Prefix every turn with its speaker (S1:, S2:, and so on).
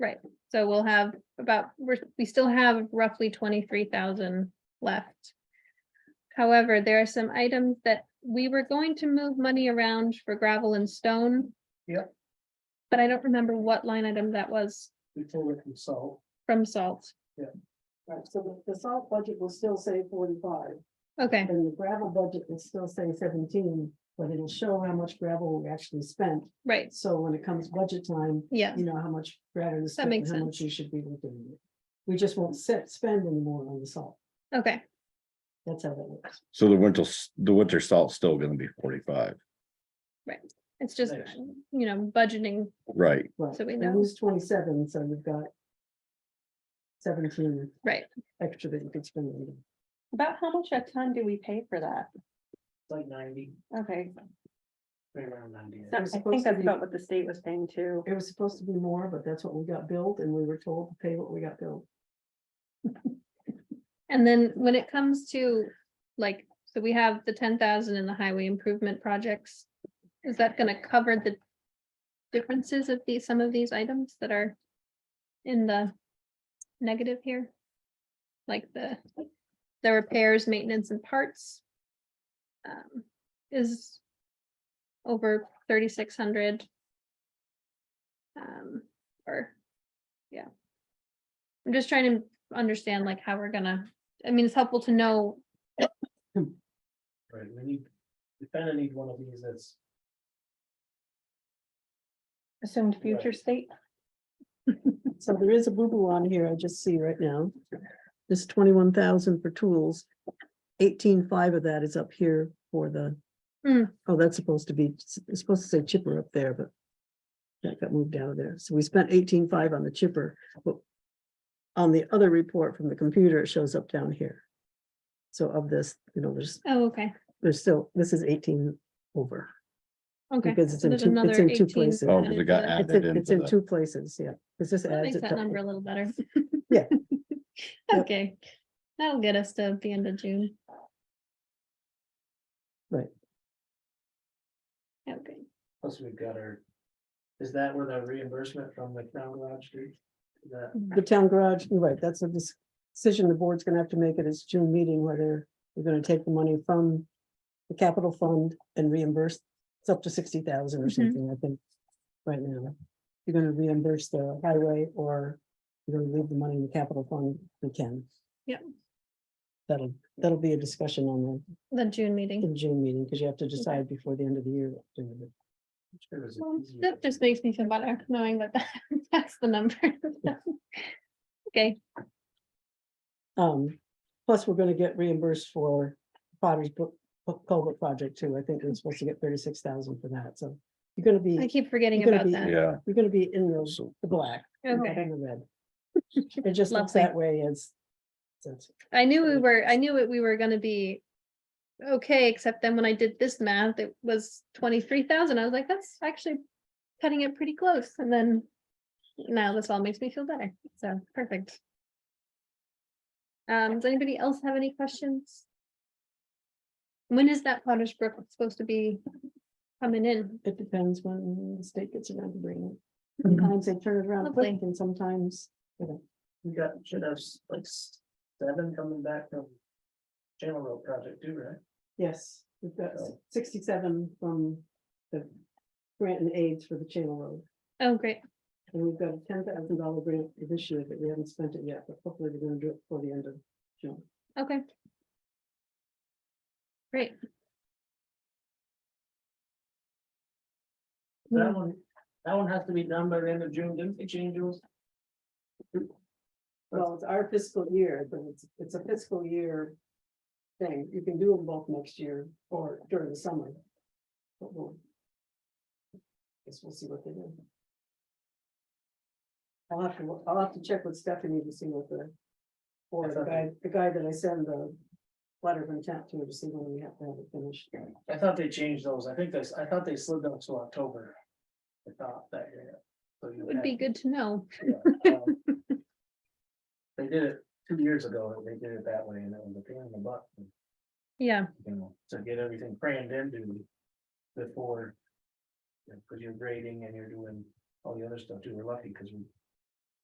S1: Right, so we'll have about, we're, we still have roughly twenty-three thousand left. However, there are some items that we were going to move money around for gravel and stone.
S2: Yep.
S1: But I don't remember what line item that was
S2: before it can solve.
S1: from salt.
S3: Right, so the, the salt budget will still say forty-five,
S1: Okay,
S3: and the gravel budget will still say seventeen, but it'll show how much gravel we actually spent.
S1: right,
S3: So when it comes budget time,
S1: yeah,
S3: you know how much gravel is spent,
S1: makes
S3: and how much you should be looking at. We just won't set, spend anymore on the salt,
S1: okay,
S3: that's how that works.
S4: So the winter, s- the winter salt's still gonna be forty-five,
S1: it's just,
S2: Nice.
S1: you know, budgeting,
S4: right?
S3: Right,
S1: So we
S3: and
S1: know.
S3: lose twenty-seven, so you've got seventeen
S1: right,
S3: extra that you could spend. on it.
S5: About how much a ton do we pay for that?
S2: It's like ninety,
S5: Okay,
S2: right around ninety.
S5: so I
S3: supposed to
S5: think that's
S3: be-
S5: about what the state was paying too.
S3: It was supposed to be more, but that's what we got billed, and we were told to pay what we got billed.
S1: and then when it comes to, like, so we have the ten thousand in the highway improvement projects. Is that gonna cover the differences of these, some of these items that are in the negative here? Like the, the repairs, maintenance and parts. um, Is over thirty-six hundred. Um, or, yeah. I'm just trying to understand like how we're gonna, I mean, it's helpful to know,
S2: Right, we need, we kind of need one of these that's,
S5: Assumed future
S2: Right.
S5: state.
S3: So there is a boo-boo on here, I just see right now. This twenty-one thousand for tools. Eighteen-five of that is up here for the.
S1: Hmm.
S3: Oh, that's supposed to be, it's supposed to say chipper up there, but. That got moved out of there. So we spent eighteen-five on the chipper, but. On the other report from the computer, it shows up down here. So of this, you know, there's,
S1: oh, okay,
S3: there's still, this is eighteen over.
S1: okay.
S3: Because it's
S1: So
S3: in
S1: there's
S3: two- it's
S1: another
S3: in two
S1: 18
S3: places.
S4: Oh, 'cause it got
S1: added to
S3: It's
S4: added
S3: in, it's
S4: into
S3: in
S4: the,
S3: two places, yeah. This just
S1: That
S3: adds
S1: makes
S3: it
S1: that number
S3: to.
S1: a little better.
S3: Yeah. Yep.
S1: Okay, that'll get us to the end of June.
S3: Right.
S1: Okay,
S2: plus we've got our. Is that where the reimbursement from the town garage street? That,
S3: The town garage, you're right, that's a dis- decision the board's gonna have to make at its June meeting, whether you're gonna take the money from the capital fund and reimburse, it's up to sixty thousand or
S1: Mhm.
S3: something, I think, right now. You're gonna reimburse the highway or you're gonna leave the money in the capital fund, we can.
S1: Yep.
S3: That'll, that'll be a discussion on
S1: the June
S3: the,
S1: meeting.
S3: in June meeting, because you have to decide before the end of the year. what to do with it.
S2: it was
S1: Well,
S2: easier.
S1: That just makes me feel better knowing that that's the number. Okay,
S3: Um, plus, we're gonna get reimbursed for Potter's Brook Brook culvert project too. I think we're supposed to get thirty-six thousand for that, so you're gonna
S1: I
S3: be,
S1: keep forgetting
S3: You're gonna
S1: about
S3: be-
S1: that.
S4: yeah,
S3: you're gonna be in the,
S4: So-
S3: the black,
S1: Okay.
S3: in the red. It just looks
S1: Lovely.
S3: that way as. since-
S1: I knew we
S3: Right.
S1: were, I knew it, we were gonna be. Okay, except then when I did this math, it was twenty-three thousand. I was like, that's actually cutting it pretty close, and then. Now this all makes me feel better, so perfect. Um, does anybody else have any questions? When is that Potter's Brook supposed to be coming in?
S3: It depends when the state gets around to bringing it. Sometimes they turn it around quick
S1: Mm-hmm. Lovely.
S3: and sometimes, you know,
S2: We got, should have s- like s- seven coming back from. Channel Road project too, right?
S3: yes, we've got sixty-seven from the grant and aids for the Channel Road.
S1: Oh, great,
S3: And we've got a ten thousand dollar grant for this year, but we haven't spent it yet, but hopefully we're gonna do it before the end of June.
S1: okay. Great, Hmm.
S2: That one, that one has to be done by the end of June, didn't they change those?
S3: Well, it's our fiscal year, but it's, it's a fiscal year thing. You can do them both next year or during the summer. But we'll. Guess we'll see what they do. I'll have to, I'll have to check with Stephanie to see what the, or the guy, the guy that I send the letter of intent to to see when we have to have it finished.
S2: I thought they changed those. I think that's, I thought they slid them to October. I thought that year. So you
S1: it would
S2: had-
S1: be good to know.
S2: Yeah, um, They did it two years ago, and they did it that way, and it was a pain in the butt, you
S1: Yeah,
S2: know, to get everything crammed into before. Because you're grading and you're doing all the other stuff too, we're lucky because we